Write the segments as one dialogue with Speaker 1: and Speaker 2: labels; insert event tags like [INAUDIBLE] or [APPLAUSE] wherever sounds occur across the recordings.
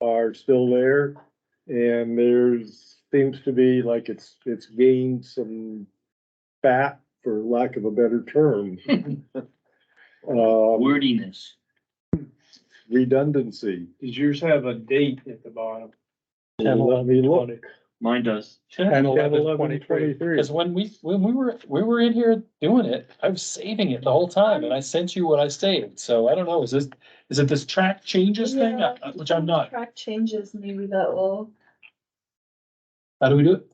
Speaker 1: are still there. And there's, seems to be like it's, it's gained some fat, for lack of a better
Speaker 2: [LAUGHS]
Speaker 1: term. Um,
Speaker 3: wordiness.
Speaker 1: redundancy.
Speaker 4: Does yours have a date at the bottom?
Speaker 1: Let me look.
Speaker 3: Mine does.
Speaker 2: Ten, eleven,
Speaker 1: 11,
Speaker 2: twenty-three.
Speaker 1: 23.
Speaker 2: Cause when we, when we were, we were in here doing it, I was saving it the whole time and I sent you what I saved. So I don't know, is this, is it this track changes thing,
Speaker 5: Yeah.
Speaker 2: Uh, which I'm not?
Speaker 5: Track changes, maybe that will,
Speaker 2: How do we do it?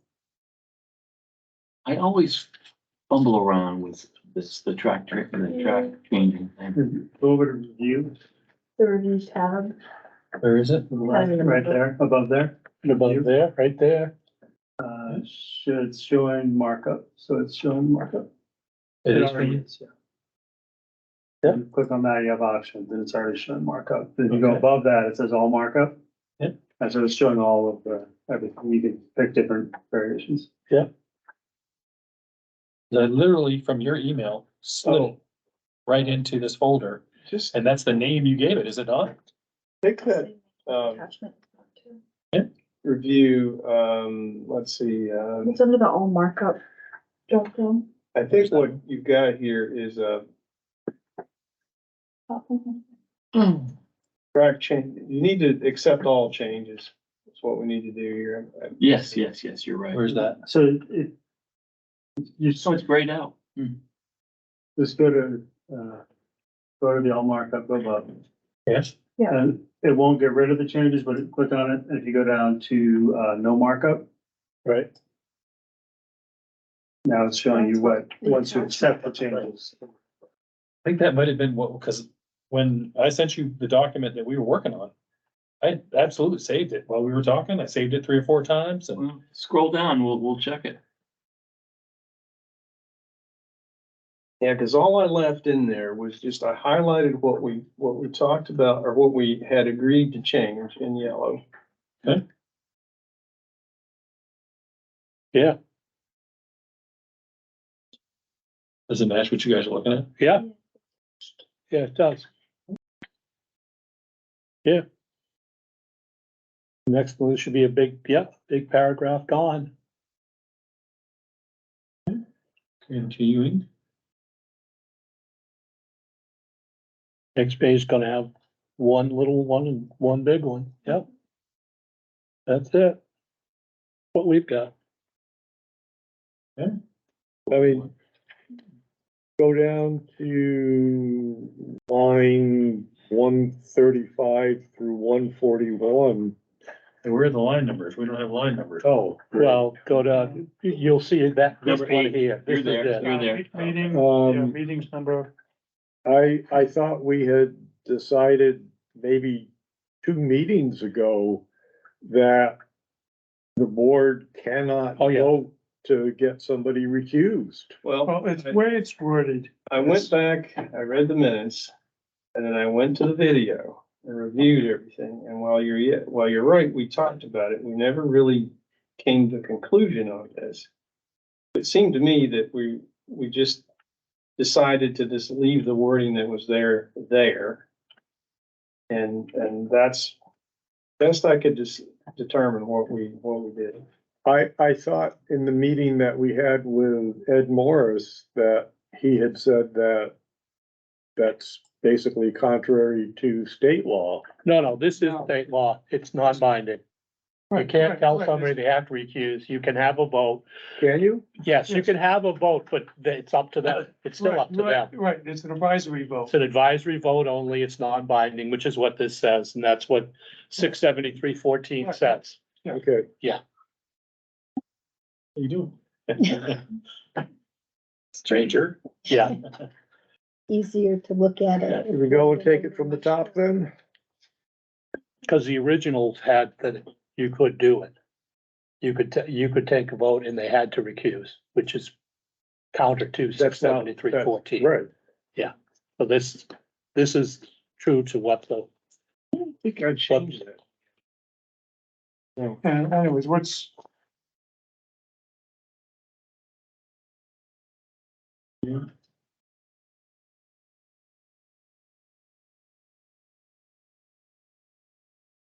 Speaker 3: I always fumble around with this, the track, tra- the track changing thing.
Speaker 4: Over to review,
Speaker 5: the review tab.
Speaker 2: Where is it?
Speaker 4: the last, right there, above there,
Speaker 2: Above there, right there.
Speaker 4: uh, should, it's showing markup, so it's showing markup.
Speaker 2: It is.
Speaker 4: already is, yeah.
Speaker 2: Yeah.
Speaker 4: You Click on that, you have options, and it's already showing markup, if you go
Speaker 2: Okay.
Speaker 4: above that, it says all markup.
Speaker 2: Yeah.
Speaker 4: And so it's showing all of the, everything, you can pick different variations.
Speaker 2: I literally from your email slid right into this folder.
Speaker 6: Just
Speaker 2: And that's the name you gave it, is it not?
Speaker 6: take that um,
Speaker 5: Attachment.
Speaker 6: review, um, let's see, um,
Speaker 5: It's under the all markup drop down.
Speaker 6: I think what you've got here is a track change. You need to accept all changes. That's what we need to do here.
Speaker 3: [CLEARS THROAT] Yes, yes, yes, you're right.
Speaker 2: Where's that?
Speaker 4: So it, you
Speaker 3: So it's grayed out.
Speaker 4: just go to, uh, go to the all markup above.
Speaker 2: Yes.
Speaker 4: And it won't get rid of the changes, but click on it, and if you go down to, uh, no markup,
Speaker 2: Right.
Speaker 4: now it's showing you what, once you accept the changes.
Speaker 2: I think that might have been what, because when I sent you the document that we were working on, I absolutely saved it while we were talking. I saved it three or four times and
Speaker 3: Well, Scroll down, we'll, we'll check it.
Speaker 6: Yeah, because all I left in there was just, I highlighted what we, what we talked about or what we had agreed to change in yellow.
Speaker 2: does it match what you guys are looking at?
Speaker 1: Yeah, it does. Yeah. Next one should be a big, yeah, big paragraph gone.
Speaker 2: Continuing.
Speaker 1: Next page is gonna have one little one and one big one, yep. That's it. What we've got.
Speaker 2: Yeah.
Speaker 1: I mean, go down to line one thirty-five through one forty-one.
Speaker 2: And where are the line numbers? We don't have line numbers.
Speaker 1: Oh. Well, go down, you- you'll see that, this
Speaker 3: Number
Speaker 1: one
Speaker 3: eight.
Speaker 1: here. This
Speaker 3: You're
Speaker 1: is
Speaker 3: there,
Speaker 1: it.
Speaker 3: you're there.
Speaker 4: Meeting,
Speaker 1: Um,
Speaker 4: meetings number.
Speaker 1: I, I thought we had decided maybe two meetings ago that the board cannot
Speaker 2: Oh, yeah.
Speaker 1: vote to get somebody recused.
Speaker 6: Well, I-
Speaker 4: where it's worded.
Speaker 6: I went back, I read the minutes, and then I went to the video and reviewed everything. And while you're, ye- while you're right, we talked about it. We never really came to a conclusion on this. It seemed to me that we, we just decided to just leave the wording that was there, there. And, and that's best I could just determine what we, what we did.
Speaker 1: I, I thought in the meeting that we had with Ed Morris that he had said that that's basically contrary to state law.
Speaker 7: No, no, this is
Speaker 3: No.
Speaker 7: state law. It's non-binding. You can't tell somebody they have to recuse. You can have a vote.
Speaker 1: Can you?
Speaker 7: Yes, you can have a vote, but th- it's up to them. It's still up to them.
Speaker 4: Right, it's an advisory vote.
Speaker 7: It's an advisory vote only. It's non-binding, which is what this says, and that's what six seventy-three fourteen
Speaker 4: Right.
Speaker 7: says.
Speaker 1: Okay.
Speaker 2: What are you doing? Stranger.
Speaker 7: Yeah,
Speaker 5: Easier to look at it.
Speaker 1: Here we go and take it from the top then?
Speaker 7: because the originals had that you could do it. You could, ta- you could take a vote and they had to recuse, which is counter to six
Speaker 1: That's not-
Speaker 7: seventy-three
Speaker 1: that's
Speaker 7: fourteen.
Speaker 1: Right.
Speaker 7: So this, this is true to what the
Speaker 1: I think I changed it.
Speaker 4: And anyways, what's,